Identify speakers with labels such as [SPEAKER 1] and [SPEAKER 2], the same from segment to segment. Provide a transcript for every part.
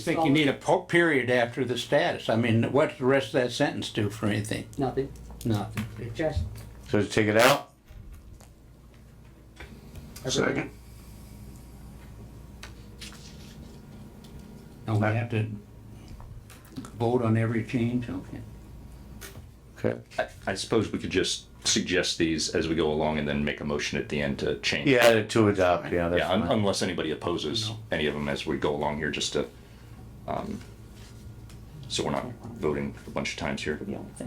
[SPEAKER 1] think you need a po- period after the status. I mean, what's the rest of that sentence do for anything?
[SPEAKER 2] Nothing,
[SPEAKER 1] Nothing.
[SPEAKER 2] just.
[SPEAKER 3] So take it out?
[SPEAKER 4] Second.
[SPEAKER 1] And we have to vote on every change, okay?
[SPEAKER 3] Okay.
[SPEAKER 5] I- I suppose we could just suggest these as we go along and then make a motion at the end to change.
[SPEAKER 3] Yeah, to adopt, yeah, that's
[SPEAKER 5] Yeah, un-
[SPEAKER 3] fine.
[SPEAKER 5] unless anybody opposes any of them as we go along here, just to, um, so we're not voting a bunch of times here.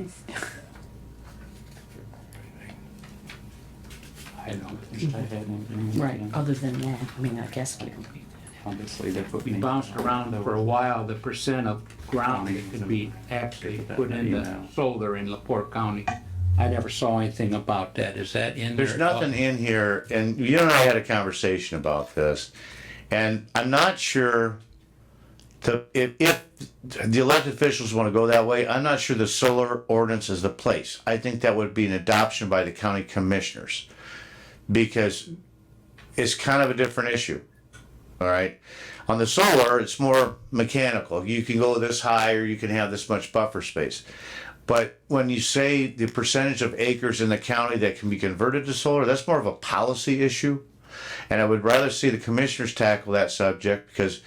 [SPEAKER 1] I don't think I had anything.
[SPEAKER 2] Mm-hmm. Right, other than that, I mean, I guess we,
[SPEAKER 6] Obviously, they put
[SPEAKER 1] We
[SPEAKER 6] me.
[SPEAKER 1] bounced around for a while, the percent of ground that could be actually put into solar in Laporte County. I never saw anything about that. Is that in there?
[SPEAKER 3] There's
[SPEAKER 1] at all?
[SPEAKER 3] nothing in here, and you and I had a conversation about this, and I'm not sure the, if, if the elected officials wanna go that way, I'm not sure the solar ordinance is the place. I think that would be an adoption by the county commissioners, because it's kind of a different issue. All right. On the solar, it's more mechanical. You can go this high or you can have this much buffer space. But when you say the percentage of acres in the county that can be converted to solar, that's more of a policy issue. And I would rather see the commissioners tackle that subject because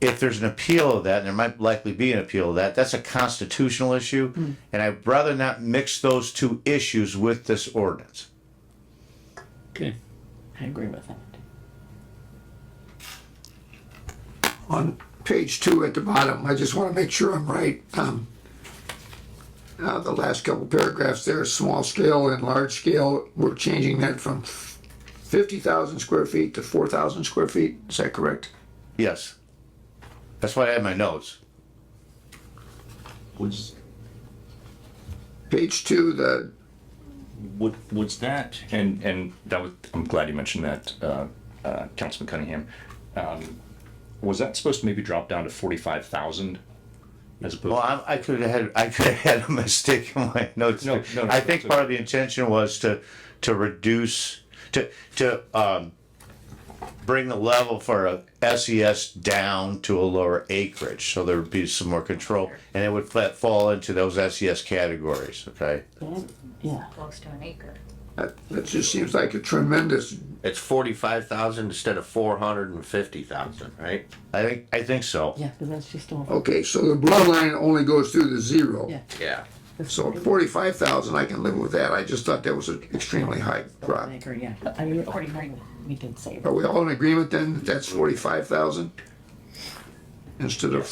[SPEAKER 3] if there's an appeal of that, and there might likely be an appeal of that, that's a constitutional issue. And I'd rather not mix those two issues with this ordinance.
[SPEAKER 1] Okay.
[SPEAKER 2] I agree with that.
[SPEAKER 4] On page two at the bottom, I just want to make sure I'm right. Um, uh, The last couple paragraphs there, small scale and large scale, we're changing that from 50,000 square feet to 4,000 square feet. Is that correct?
[SPEAKER 3] Yes. That's why I had my notes.
[SPEAKER 7] Was,
[SPEAKER 4] Page two, the,
[SPEAKER 5] Would, was that, and, and that was, I'm glad you mentioned that, uh, uh, Councilman Cunningham. Um, Was that supposed to maybe drop down to forty-five thousand? As
[SPEAKER 3] Well,
[SPEAKER 5] opposed,
[SPEAKER 3] I, I could have had, I could have had a mistake in my notes.
[SPEAKER 5] No, no, no,
[SPEAKER 3] I think
[SPEAKER 5] it's
[SPEAKER 3] part of the intention was to, to reduce, to, to, um, bring the level for a SES down to a lower acreage, so there would be some more control, and it would fa- fall into those SES categories, okay?
[SPEAKER 2] Yeah,
[SPEAKER 8] close to an acre.
[SPEAKER 4] that that just seems like a tremendous,
[SPEAKER 9] It's forty-five thousand instead of four hundred and fifty thousand, right?
[SPEAKER 3] I think, I think so.
[SPEAKER 2] yeah, because that's just
[SPEAKER 3] Oh,
[SPEAKER 2] all,
[SPEAKER 4] okay, so the blue line only goes through the zero.
[SPEAKER 2] Yeah.
[SPEAKER 9] Yeah.
[SPEAKER 4] So 45,000, I can live with that. I just thought that was an extremely high drop.
[SPEAKER 2] I agree, yeah, I mean, forty-nine, we did say.
[SPEAKER 3] Oh,
[SPEAKER 4] Are we all in agreement then? that That's 45,000? Instead of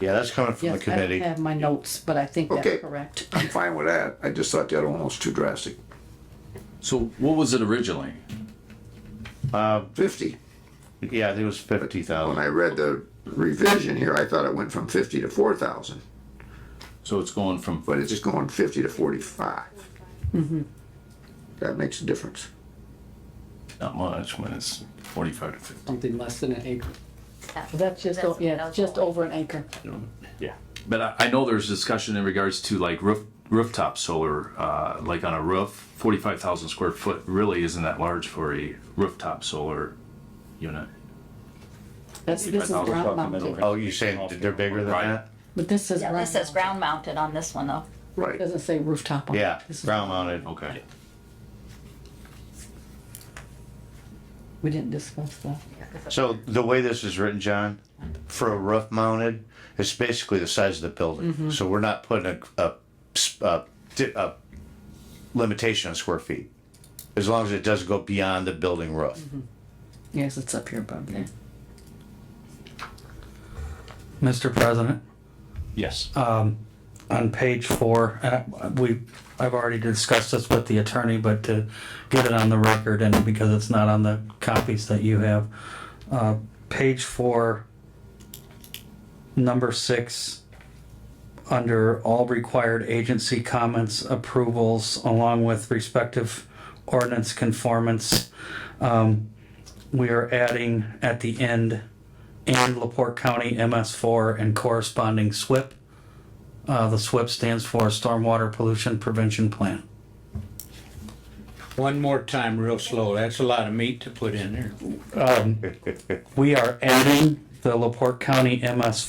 [SPEAKER 3] Yeah, that's coming from the
[SPEAKER 2] Yes, I don't
[SPEAKER 3] committee.
[SPEAKER 2] have my notes, but I think
[SPEAKER 4] Okay.
[SPEAKER 2] that's correct.
[SPEAKER 4] I'm fine with that. I just thought that almost too drastic.
[SPEAKER 6] So what was it originally?
[SPEAKER 4] Fifty.
[SPEAKER 3] Yeah, I think it was fifty
[SPEAKER 4] When
[SPEAKER 3] thousand.
[SPEAKER 4] I read the revision here, I thought it went from fifty to four thousand,
[SPEAKER 6] So it's going from,
[SPEAKER 4] but it's going fifty to forty-five. That makes a difference.
[SPEAKER 6] not much, when it's forty-five to fifty.
[SPEAKER 2] Something less than an acre.
[SPEAKER 8] That-
[SPEAKER 2] That's just, o- yeah,
[SPEAKER 8] that
[SPEAKER 2] it's
[SPEAKER 8] was
[SPEAKER 2] just
[SPEAKER 8] all.
[SPEAKER 2] over an acre.
[SPEAKER 6] But I, I know there's discussion in regards to like roof, rooftop solar, uh, like on a roof, forty-five thousand square foot really isn't that large for a rooftop solar unit.
[SPEAKER 2] That's, this is ground mounted,
[SPEAKER 3] Oh, you're saying that they're bigger than
[SPEAKER 6] Right.
[SPEAKER 3] that?
[SPEAKER 2] but this is.
[SPEAKER 8] Yeah, this
[SPEAKER 2] mounted.
[SPEAKER 8] says ground mounted on this one though.
[SPEAKER 4] Right.
[SPEAKER 2] Doesn't say rooftop on it.
[SPEAKER 3] Yeah,
[SPEAKER 2] This is-
[SPEAKER 3] ground mounted.
[SPEAKER 6] Okay.
[SPEAKER 2] We didn't discuss that.
[SPEAKER 3] So the way this is written, John, for a roof mounted, it's basically the size of the
[SPEAKER 2] Mm-hmm.
[SPEAKER 3] building. So we're not putting a, a, s- a di- a limitation on square feet. As long as it doesn't go beyond the building roof.
[SPEAKER 2] Yes, it's up here above there.
[SPEAKER 10] Mr. President,
[SPEAKER 5] yes.
[SPEAKER 10] on page four, uh, we, I've already discussed this with the attorney, but to get it on the record and because it's not on the copies that you have, uh, page four, number six, under all required agency comments, approvals, along with respective ordinance conformance, um, we are adding at the end, and Laporte County MS4 and corresponding SWIP. Uh, the SWIP stands for Stormwater Pollution Prevention Plan.
[SPEAKER 1] One more time, real slow. That's a lot of meat to put in there.
[SPEAKER 10] We are adding the Laporte County MS